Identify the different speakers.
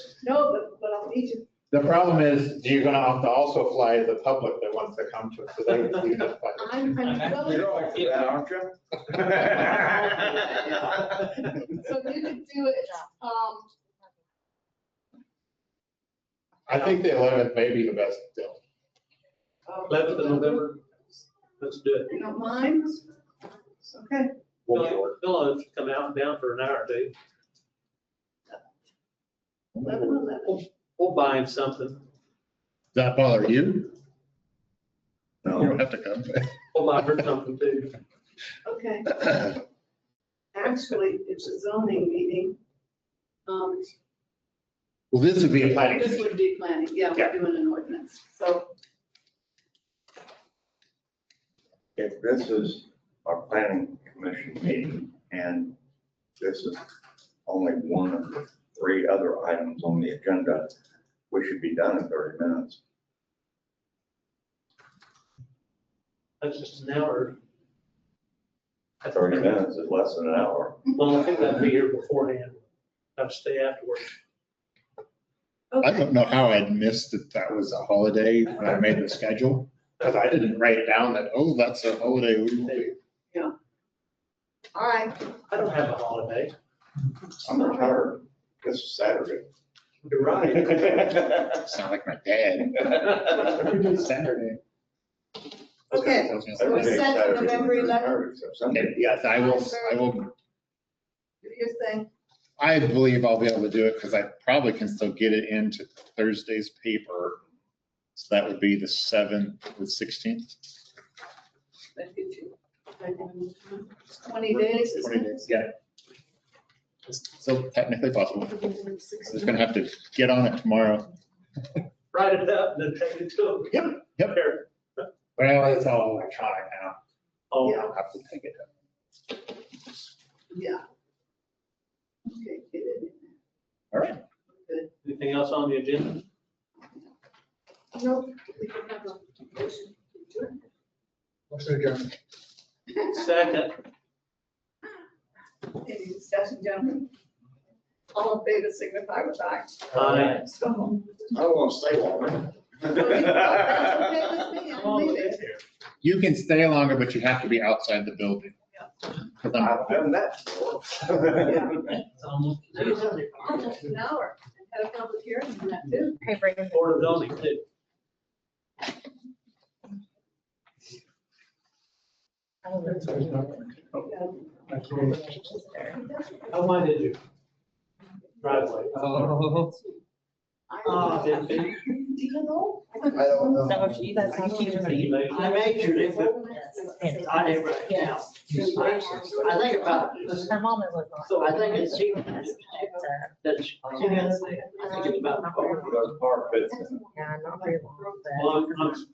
Speaker 1: No, but, but I'll need you.
Speaker 2: The problem is, you're gonna have to also fly the public that wants to come to it, so they would see the
Speaker 1: I'm, I'm willing,
Speaker 3: You're all for that, aren't you?
Speaker 1: so you could do it, um,
Speaker 2: I think the eleventh may be the best deal.
Speaker 1: um,
Speaker 4: Eleventh of November, let's do it.
Speaker 1: You don't mind? Okay.
Speaker 2: We'll be
Speaker 4: Bill Bill will come out and down for an hour or two.
Speaker 1: Eleven, eleven.
Speaker 4: We'll buy him something.
Speaker 5: Does that bother you? You
Speaker 3: No.
Speaker 5: don't have to come.
Speaker 4: We'll buy her something too.
Speaker 1: Okay, actually, it's a zoning meeting. Um,
Speaker 2: Well, this would be a planning.
Speaker 1: This would be planning, yeah, we're
Speaker 2: Yeah.
Speaker 1: doing an ordinance, so,
Speaker 3: If this is a planning commission meeting and this is only one of the three other items on the agenda, we should be done in thirty minutes.
Speaker 4: That's just an hour. That's
Speaker 3: Thirty minutes is less than an hour.
Speaker 4: Well, I think that'd be here beforehand. I'd stay afterwards.
Speaker 5: I
Speaker 1: okay.
Speaker 5: don't know how I'd missed that that was a holiday when I made the schedule, because I didn't write it down that, oh, that's a holiday. we will be-
Speaker 1: All right,
Speaker 4: I don't have a holiday.
Speaker 3: I'm retired. This is Saturday.
Speaker 4: You're right.
Speaker 5: Sound like my dad. Saturday.
Speaker 1: Okay. So we
Speaker 3: Every day
Speaker 1: set
Speaker 3: Saturday,
Speaker 1: November
Speaker 3: you're
Speaker 1: 11th?
Speaker 3: retired except Sunday.
Speaker 5: And Yes, I will, I will,
Speaker 1: you're saying,
Speaker 5: I believe I'll be able to do it because I probably can still get it into Thursday's paper. So that would be the seventh, the sixteenth,
Speaker 1: that gives you, like, um, twenty days,
Speaker 5: twenty
Speaker 1: isn't
Speaker 5: days, yeah. So technically possible.
Speaker 1: it?
Speaker 5: I'm just gonna have to get on it tomorrow.
Speaker 4: Write it up and then take it to him.
Speaker 5: Yep, yep.
Speaker 4: Here.
Speaker 2: Well, it's all electronic now.
Speaker 4: Oh,
Speaker 1: Yeah.
Speaker 5: I'll have to take it.
Speaker 1: Yeah. Okay, get it in there.
Speaker 5: All right.
Speaker 4: anything else on the agenda?
Speaker 1: Nope, we can have a motion to adjourn.
Speaker 4: Second,
Speaker 1: Any discussion, gentlemen? All in favor, signify with aye.
Speaker 4: aye.
Speaker 1: So.
Speaker 3: I don't want to stay long.
Speaker 1: That's okay with me,
Speaker 4: Come
Speaker 1: I'm
Speaker 4: on,
Speaker 1: leaving.
Speaker 4: let's hear it.
Speaker 5: You can stay longer, but you have to be outside the building. 'Cause I'm-
Speaker 3: I've done that before.
Speaker 4: It's almost-
Speaker 1: Almost an hour, had a public hearing on that too.
Speaker 6: Hey, Brandon.
Speaker 4: Board of zoning too. How wide is your driveway?
Speaker 7: Ah,
Speaker 1: I
Speaker 4: didn't
Speaker 1: Do
Speaker 4: they?
Speaker 1: you know?
Speaker 3: I don't know.
Speaker 6: So she does not keep her.
Speaker 4: You made it.
Speaker 7: I measured it, but I didn't write it down. I think about,
Speaker 6: Her mom is like.
Speaker 7: so I think it's, she,
Speaker 6: Yeah,
Speaker 7: that's, she has, I think it's about four.
Speaker 3: Those bar pits.
Speaker 6: not very long, but.
Speaker 4: Well, I'm- I'm